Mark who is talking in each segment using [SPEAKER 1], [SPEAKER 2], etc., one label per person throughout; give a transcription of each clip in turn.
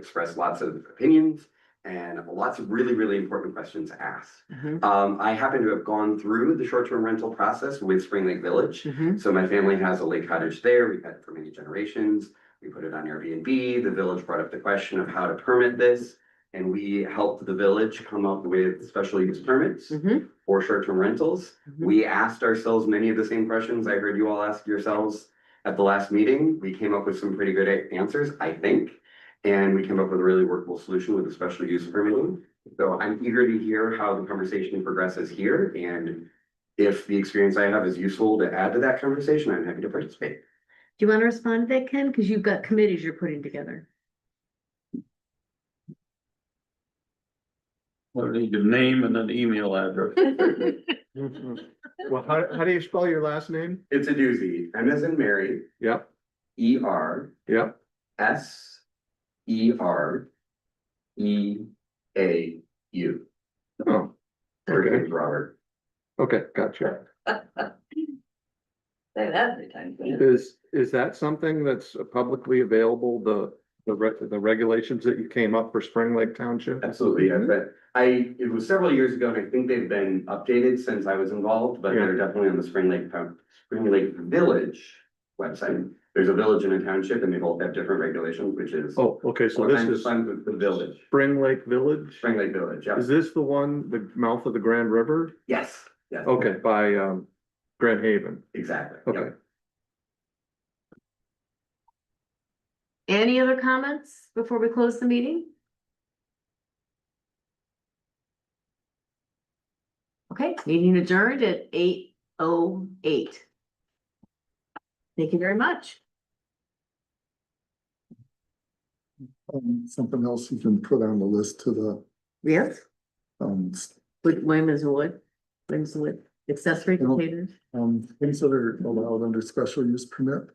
[SPEAKER 1] expressed lots of opinions and lots of really, really important questions asked.
[SPEAKER 2] Mhm.
[SPEAKER 1] Um, I happen to have gone through the short-term rental process with Spring Lake Village.
[SPEAKER 2] Mhm.
[SPEAKER 1] So my family has a lake cottage there. We've had it for many generations. We put it on Airbnb. The village brought up the question of how to permit this. And we helped the village come up with special use permits
[SPEAKER 2] Mhm.
[SPEAKER 1] for short-term rentals.
[SPEAKER 2] Mhm.
[SPEAKER 1] We asked ourselves many of the same questions I heard you all ask yourselves at the last meeting. We came up with some pretty good a- answers, I think. And we came up with a really workable solution with a special use permitting. So I'm eager to hear how the conversation progresses here and if the experience I have is useful to add to that conversation, I'm happy to participate.
[SPEAKER 2] Do you want to respond to that, Ken? Because you've got committees you're putting together.
[SPEAKER 3] Well, I need a name and an email address.
[SPEAKER 4] Mm-hmm. Well, how, how do you spell your last name?
[SPEAKER 1] It's a doozy. M as in Mary,
[SPEAKER 4] Yep,
[SPEAKER 1] E R
[SPEAKER 4] yep.
[SPEAKER 1] S E R E A U.
[SPEAKER 4] Oh,
[SPEAKER 1] Her name's Robert.
[SPEAKER 4] okay, gotcha.
[SPEAKER 5] Say that three times.
[SPEAKER 4] Is, is that something that's publicly available, the, the, re- the regulations that you came up for Spring Lake Township?
[SPEAKER 1] Absolutely,
[SPEAKER 4] Mm-hmm.
[SPEAKER 1] yeah, but I, it was several years ago, and I think they've been updated since I was involved, but they're definitely on the Spring Lake, Town- Spring Lake Village website. There's a village and a township, and they both have different regulations, which is.
[SPEAKER 4] Oh, okay, so
[SPEAKER 1] Well,
[SPEAKER 4] this
[SPEAKER 1] I'm
[SPEAKER 4] is
[SPEAKER 1] fine with The village,
[SPEAKER 4] Spring Lake Village?
[SPEAKER 1] Spring Lake Village, yeah,
[SPEAKER 4] Is this the one, the mouth of the Grand River?
[SPEAKER 1] yes, yes.
[SPEAKER 4] Okay, by, um, Grand Haven.
[SPEAKER 1] Exactly,
[SPEAKER 4] Okay.
[SPEAKER 1] yeah.
[SPEAKER 2] Any other comments before we close the meeting? Okay, meeting adjourned at eight oh eight. Thank you very much.
[SPEAKER 6] um, something else you can put on the list to the,
[SPEAKER 2] Yes.
[SPEAKER 6] um, s-
[SPEAKER 2] With women's wood, women's wood, accessory
[SPEAKER 6] Hello.
[SPEAKER 2] containers,
[SPEAKER 6] um, things that are allowed under special use permit.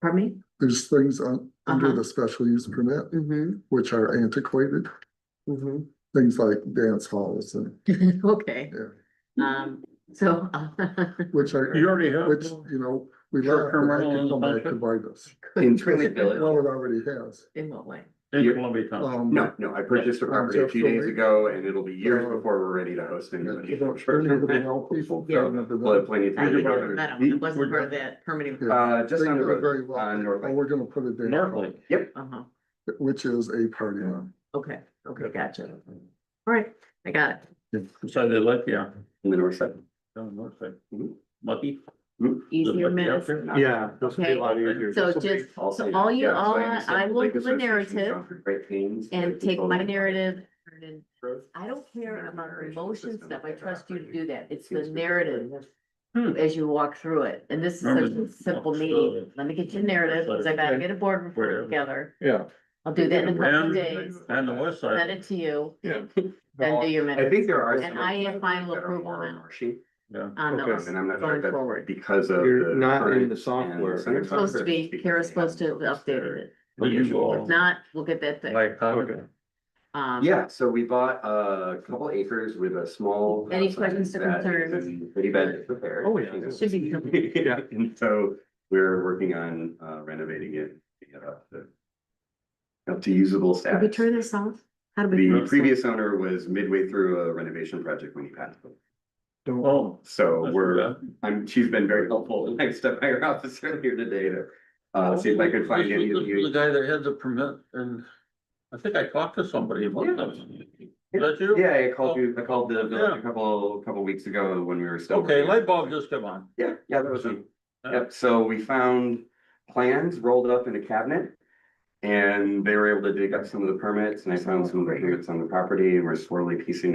[SPEAKER 2] pardon me?
[SPEAKER 6] There's things on, under
[SPEAKER 2] Uh-huh.
[SPEAKER 6] the special use permit,
[SPEAKER 2] Mm-hmm,
[SPEAKER 6] which are antiquated,
[SPEAKER 2] mm-hmm.
[SPEAKER 6] things like dance halls and,
[SPEAKER 2] Okay,
[SPEAKER 6] yeah,
[SPEAKER 2] um, so.
[SPEAKER 6] which are,
[SPEAKER 3] You already have.
[SPEAKER 6] which, you know, we love.
[SPEAKER 3] Short-term rental in the
[SPEAKER 6] Come back to
[SPEAKER 3] township?
[SPEAKER 6] buy this.
[SPEAKER 1] In Spring Lake
[SPEAKER 6] Well,
[SPEAKER 1] Village,
[SPEAKER 6] it already has.
[SPEAKER 2] In what way?
[SPEAKER 3] In Columbia Town.
[SPEAKER 6] Um,
[SPEAKER 1] no, no, I purchased a property a few days ago, and it'll be years before we're ready to host
[SPEAKER 6] but
[SPEAKER 1] anybody.
[SPEAKER 6] you don't turn into the old people.
[SPEAKER 2] Yeah.
[SPEAKER 1] We'll have plenty of
[SPEAKER 2] I
[SPEAKER 1] time to
[SPEAKER 2] didn't
[SPEAKER 1] go
[SPEAKER 2] know
[SPEAKER 1] over.
[SPEAKER 2] that, I wasn't part of that permitting.
[SPEAKER 6] Yeah.
[SPEAKER 1] Uh, just
[SPEAKER 6] They
[SPEAKER 1] on the
[SPEAKER 6] do it very
[SPEAKER 1] road,
[SPEAKER 6] well.
[SPEAKER 1] on North
[SPEAKER 6] Oh,
[SPEAKER 1] Lake.
[SPEAKER 6] we're gonna put it
[SPEAKER 3] North
[SPEAKER 6] there,
[SPEAKER 3] Lake.
[SPEAKER 2] Uh-huh,
[SPEAKER 6] which is a party lot.
[SPEAKER 2] okay, okay, gotcha. All right, I got it.
[SPEAKER 3] Beside the lake, yeah.
[SPEAKER 1] in the north side.
[SPEAKER 3] Down north side. Mm-hmm.
[SPEAKER 1] Mhm.
[SPEAKER 3] Lucky.
[SPEAKER 2] Easier
[SPEAKER 3] Lucky out
[SPEAKER 2] minutes.
[SPEAKER 3] there.
[SPEAKER 4] Yeah, this would be a lot easier.
[SPEAKER 2] So
[SPEAKER 4] This'll be-
[SPEAKER 2] just, so all you,
[SPEAKER 1] Yeah, so
[SPEAKER 2] all
[SPEAKER 1] like
[SPEAKER 2] I,
[SPEAKER 1] said,
[SPEAKER 2] I will
[SPEAKER 1] like
[SPEAKER 2] do a
[SPEAKER 1] associations
[SPEAKER 2] narrative
[SPEAKER 1] gone through Great things.
[SPEAKER 2] and take my narrative. and then-
[SPEAKER 1] narrative.
[SPEAKER 2] I don't care about the emotions stuff. I trust you to do that. It's the
[SPEAKER 1] Seems pretty
[SPEAKER 2] narrative
[SPEAKER 3] Hmm.
[SPEAKER 2] as you walk through it. And this is such
[SPEAKER 3] Remember
[SPEAKER 2] a simple
[SPEAKER 3] the-
[SPEAKER 2] meeting. Let me get your narrative, because I gotta get a board report
[SPEAKER 3] Whatever.
[SPEAKER 2] together.
[SPEAKER 4] Yeah.
[SPEAKER 2] I'll do that in a couple of
[SPEAKER 3] And,
[SPEAKER 2] days.
[SPEAKER 3] and the west
[SPEAKER 2] Send
[SPEAKER 3] side,
[SPEAKER 2] it to you,
[SPEAKER 4] Yeah.
[SPEAKER 2] then do your
[SPEAKER 1] I
[SPEAKER 2] minutes
[SPEAKER 1] think there are.
[SPEAKER 2] And
[SPEAKER 1] some
[SPEAKER 2] I have final
[SPEAKER 1] that are
[SPEAKER 2] approval
[SPEAKER 1] more
[SPEAKER 2] now.
[SPEAKER 1] marshy,
[SPEAKER 3] yeah.
[SPEAKER 2] on
[SPEAKER 4] okay,
[SPEAKER 2] those.
[SPEAKER 1] And I'm not sure
[SPEAKER 2] Going
[SPEAKER 1] if that's
[SPEAKER 2] forward.
[SPEAKER 1] because of.
[SPEAKER 4] You're
[SPEAKER 1] the
[SPEAKER 4] not in
[SPEAKER 1] current
[SPEAKER 4] the software.
[SPEAKER 1] and center
[SPEAKER 4] You're
[SPEAKER 2] Supposed to be,
[SPEAKER 1] conservation
[SPEAKER 2] Kara's supposed to have
[SPEAKER 1] because they have
[SPEAKER 2] updated it.
[SPEAKER 3] But you
[SPEAKER 2] If
[SPEAKER 3] all.
[SPEAKER 2] not, we'll get that thing.
[SPEAKER 3] Like, how-
[SPEAKER 4] Okay.
[SPEAKER 2] Um,
[SPEAKER 1] Yeah, so we bought a couple acres with a small.
[SPEAKER 2] Any
[SPEAKER 1] house
[SPEAKER 2] questions or
[SPEAKER 1] that is
[SPEAKER 2] concerns?
[SPEAKER 1] in Pretty bad disrepair.
[SPEAKER 4] Oh, yeah.
[SPEAKER 1] You know.
[SPEAKER 2] Should be simple.
[SPEAKER 1] Yeah, and so we're working on uh, renovating it, picking it up to. Up to usable
[SPEAKER 2] Did we
[SPEAKER 1] status.
[SPEAKER 2] turn this off? How did we? turn
[SPEAKER 1] The
[SPEAKER 2] this off?
[SPEAKER 1] previous owner was midway through a renovation project when he passed. away.
[SPEAKER 3] Oh.
[SPEAKER 1] So
[SPEAKER 3] that's
[SPEAKER 1] we're,
[SPEAKER 3] bad.
[SPEAKER 1] I'm, she's been very helpful and I stepped by her office earlier today to uh, see if I could find
[SPEAKER 3] This
[SPEAKER 1] any of
[SPEAKER 3] was- this was
[SPEAKER 1] you.
[SPEAKER 3] The guy that had the permit and I think I talked to somebody about
[SPEAKER 1] Yeah.
[SPEAKER 3] that. Is that you?
[SPEAKER 1] Yeah, I called you, I called the village
[SPEAKER 3] Yeah.
[SPEAKER 1] a couple, couple weeks ago when we were still.
[SPEAKER 3] Okay,
[SPEAKER 1] working.
[SPEAKER 3] light bulb just come on.
[SPEAKER 1] Yeah, yeah, that was me.
[SPEAKER 3] Yeah.
[SPEAKER 1] Yep, so we found plans rolled up in a cabinet. And they were able to dig up some of the permits and I found some of the permits on the property and we're slowly piecing